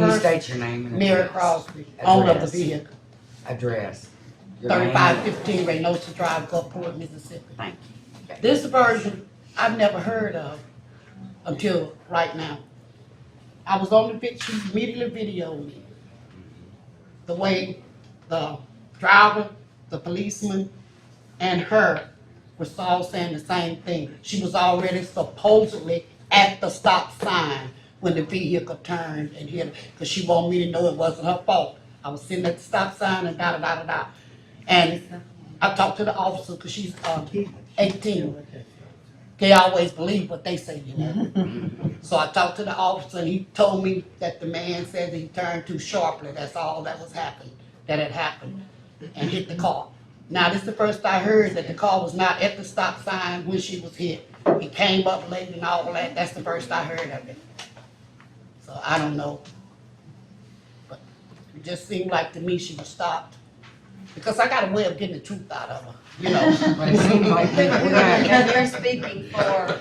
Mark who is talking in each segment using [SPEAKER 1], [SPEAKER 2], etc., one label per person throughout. [SPEAKER 1] Can you
[SPEAKER 2] First,
[SPEAKER 1] state your name and
[SPEAKER 2] Mary
[SPEAKER 1] address?
[SPEAKER 2] Crosby, owner of the
[SPEAKER 1] Address.
[SPEAKER 2] vehicle,
[SPEAKER 1] Address. Your name and
[SPEAKER 2] thirty-five fifteen Reynosa Drive, Gulfport, Mississippi.
[SPEAKER 1] Thank you.
[SPEAKER 2] This version, I've never heard of until right now. I was on the vid, she immediately videoed me. The way the driver, the policeman, and her was all saying the same thing. She was already supposedly at the stop sign when the vehicle turned and hit her, because she wanted me to know it wasn't her fault. I was sitting at the stop sign and da-da-da-da-da. And I talked to the officer, because she's, uh, eighteen. They always believe what they say, you know? So I talked to the officer, and he told me that the man said that he turned too sharply, that's all that was happened, that had happened, and hit the car. Now, this is the first I heard that the car was not at the stop sign when she was hit. It came up late and all that, that's the first I heard of it. So I don't know. But it just seemed like to me she was stopped, because I got a way of getting the truth out of her, you know?
[SPEAKER 1] But it seems like you were
[SPEAKER 3] No,
[SPEAKER 1] right.
[SPEAKER 3] they're speaking for her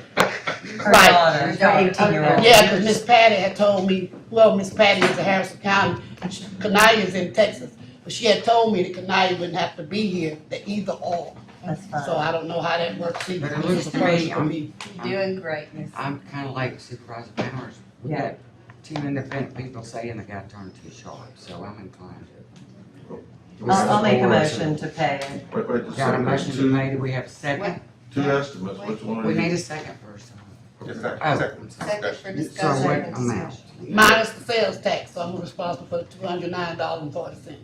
[SPEAKER 2] Right.
[SPEAKER 3] daughter.
[SPEAKER 1] Her daughter. 18-year-old.
[SPEAKER 2] Yeah, because Miss Patty had told me, well, Miss Patty is in Harrison County, and she- Cania's in Texas, but she had told me that Canaya wouldn't have to be here, the either or.
[SPEAKER 3] That's
[SPEAKER 2] So I don't know how that works either.
[SPEAKER 1] But it
[SPEAKER 2] This is
[SPEAKER 1] looks to
[SPEAKER 2] the first
[SPEAKER 1] me,
[SPEAKER 2] for
[SPEAKER 1] I'm-
[SPEAKER 2] me.
[SPEAKER 3] You're Doing great, Miss.
[SPEAKER 1] I'm kinda like Supervisor Powers. We
[SPEAKER 3] Yeah.
[SPEAKER 1] got two independent people saying the guy turned too sharp, so I'm inclined to.
[SPEAKER 3] I'll, I'll make a motion to pay it.
[SPEAKER 4] Wait, wait, just a
[SPEAKER 1] Got a
[SPEAKER 4] second, there's
[SPEAKER 1] motion to
[SPEAKER 4] two,
[SPEAKER 1] made, do we have a second?
[SPEAKER 4] two estimates, which one are
[SPEAKER 1] We need
[SPEAKER 4] you?
[SPEAKER 1] a second first.
[SPEAKER 4] Yes,
[SPEAKER 1] Oh,
[SPEAKER 4] second,
[SPEAKER 1] I'm sorry.
[SPEAKER 3] Second for
[SPEAKER 1] So what
[SPEAKER 3] discussion.
[SPEAKER 1] amount?
[SPEAKER 2] Minus the sales tax, so I'm responsible for two hundred nine dollars and forty cents.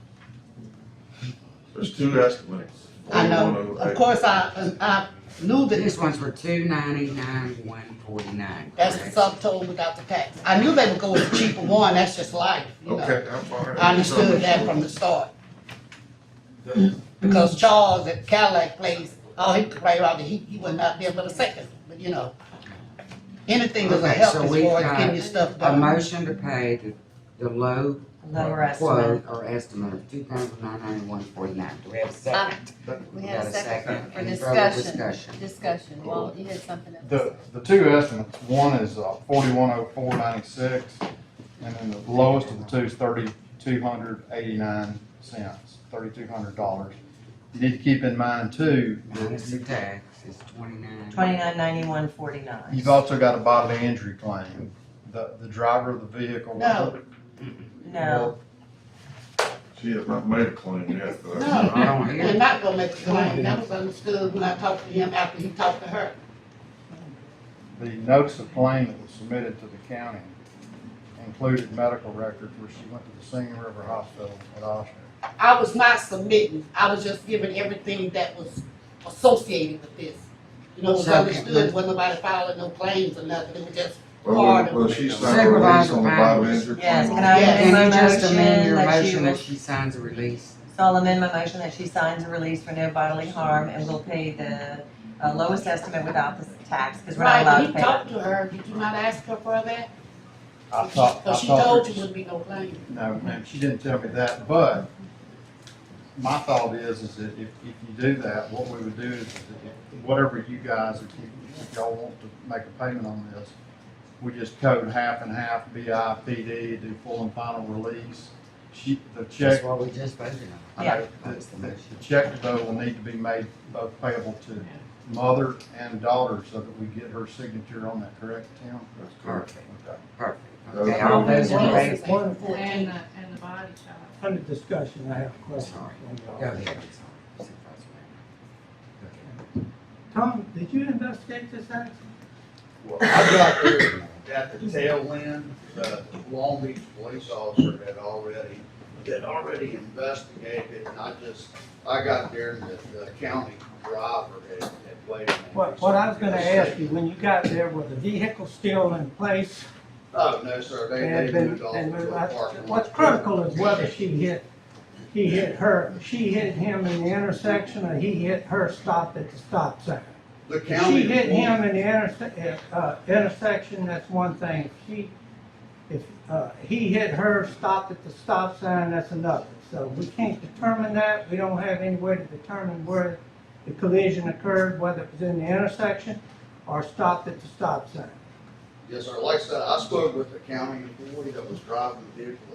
[SPEAKER 4] There's two estimates.
[SPEAKER 2] I know,
[SPEAKER 4] 4108.
[SPEAKER 2] of course, I, I knew that
[SPEAKER 1] These ones were two ninety-nine, one forty-nine.
[SPEAKER 2] that's the subtotal without the tax. I knew they would go with the cheaper one, that's just life, you know?
[SPEAKER 4] Okay, I'm fine.
[SPEAKER 2] I understood that from the start. Because Charles at Cadillac plays, oh, he could play around, he, he wasn't out there but a second, but you know. Anything is a
[SPEAKER 1] Okay,
[SPEAKER 2] help
[SPEAKER 1] so
[SPEAKER 2] as
[SPEAKER 1] we've
[SPEAKER 2] far as
[SPEAKER 1] got
[SPEAKER 2] getting your stuff
[SPEAKER 1] A
[SPEAKER 2] done.
[SPEAKER 1] motion to pay the, the low
[SPEAKER 3] Lower estimate.
[SPEAKER 1] quote or estimate of two thousand nine hundred one forty-nine. Do we have a second?
[SPEAKER 3] Uh, We have a
[SPEAKER 1] got
[SPEAKER 3] second for
[SPEAKER 1] Any further
[SPEAKER 3] discussion.
[SPEAKER 1] discussion?
[SPEAKER 3] Discussion. Well, you had something else.
[SPEAKER 5] The, the two estimates, one is forty-one oh four ninety-six, and then the lowest of the two is thirty-two hundred eighty-nine cents, thirty-two hundred dollars. You need to keep in mind too,
[SPEAKER 1] Minus the
[SPEAKER 5] that
[SPEAKER 1] tax is twenty-nine.
[SPEAKER 3] Twenty-nine ninety-one forty-nine.
[SPEAKER 5] you've also got a bodily injury claim. The, the driver of the vehicle.
[SPEAKER 2] No.
[SPEAKER 3] No,
[SPEAKER 4] She has not made a claim yet, but.
[SPEAKER 2] No.
[SPEAKER 1] I don't
[SPEAKER 2] They're
[SPEAKER 1] hear.
[SPEAKER 2] not gonna make a claim, that was understood when I talked to him after he talked to her.
[SPEAKER 5] The notice of claim that was submitted to the county included medical records where she went to the Singing River Hospital at Austin.
[SPEAKER 2] I was not submitting, I was just giving everything that was associated with this. You know, it was
[SPEAKER 1] So, okay.
[SPEAKER 2] understood, wasn't nobody filing no claims or nothing, it was just
[SPEAKER 4] Well, well, she signed a release
[SPEAKER 1] Supervisor
[SPEAKER 4] on the
[SPEAKER 1] Powers.
[SPEAKER 4] bodily injury
[SPEAKER 3] Yes,
[SPEAKER 4] claim.
[SPEAKER 3] can I
[SPEAKER 2] Yes.
[SPEAKER 3] amend
[SPEAKER 1] Can
[SPEAKER 3] my
[SPEAKER 1] you just amend
[SPEAKER 3] motion
[SPEAKER 1] your
[SPEAKER 3] that you,
[SPEAKER 1] motion that
[SPEAKER 3] will-
[SPEAKER 1] she signs a release?
[SPEAKER 3] so I'll amend my motion that she signs a release for no bodily harm and will pay the uh, lowest estimate without the tax, because we're not
[SPEAKER 2] Right,
[SPEAKER 3] allowed
[SPEAKER 2] when
[SPEAKER 3] to
[SPEAKER 2] you
[SPEAKER 3] pay that.
[SPEAKER 2] talked to her, did you not ask her for that?
[SPEAKER 5] I talked, I
[SPEAKER 2] Cause she
[SPEAKER 5] talked
[SPEAKER 2] told
[SPEAKER 5] to
[SPEAKER 2] you there wouldn't be no claim.
[SPEAKER 5] No, ma'am, she didn't tell me that, but my thought is, is that if, if you do that, what we would do is, if- whatever you guys, if you, if y'all want to make a payment on this, we just code half and half, BI, PD, do full and final release. She, the
[SPEAKER 1] That's
[SPEAKER 5] check,
[SPEAKER 1] what we just voted on.
[SPEAKER 3] Yeah.
[SPEAKER 1] That's the motion.
[SPEAKER 5] the check though will need to be made both payable to mother and daughter so that we get her signature on that, correct, Tim?
[SPEAKER 4] That's correct.
[SPEAKER 1] Perfect,
[SPEAKER 5] Okay.
[SPEAKER 1] perfect. Okay, all
[SPEAKER 4] Okay.
[SPEAKER 1] those in favor?
[SPEAKER 6] One and
[SPEAKER 7] And,
[SPEAKER 6] fourteen,
[SPEAKER 7] the- and the body shop.
[SPEAKER 6] under discussion, I have a question.
[SPEAKER 1] Sorry.
[SPEAKER 6] for
[SPEAKER 1] Go
[SPEAKER 6] y'all.
[SPEAKER 1] ahead. Supervisor Powers.
[SPEAKER 6] Tom, did you investigate this accident?
[SPEAKER 8] Well, I got there at the tail end, the Long Beach police officer had already, had already investigated, and I just, I got there and the, the county driver had, had waited. on me.
[SPEAKER 6] What, what I was gonna ask you, when you got there, was the vehicle still in place?
[SPEAKER 8] Oh, no, sir, they,
[SPEAKER 6] And
[SPEAKER 8] they
[SPEAKER 6] been-
[SPEAKER 8] moved off
[SPEAKER 6] and
[SPEAKER 8] to a
[SPEAKER 6] moved- I-
[SPEAKER 8] parking lot.
[SPEAKER 6] What's critical is whether she hit, he hit her, she hit him in the intersection, or he hit her stop at the stop sign.
[SPEAKER 8] The
[SPEAKER 6] If
[SPEAKER 8] county.
[SPEAKER 6] she hit him in the interse- uh, intersection, that's one thing. If She, if, uh, he hit her, stopped at the stop sign, that's another. So we can't determine that. We don't have any way to determine where the collision occurred, whether it was in the intersection or stopped at the stop sign.
[SPEAKER 8] Yes, sir. Like I said, I spoke with the county employee that was driving the vehicle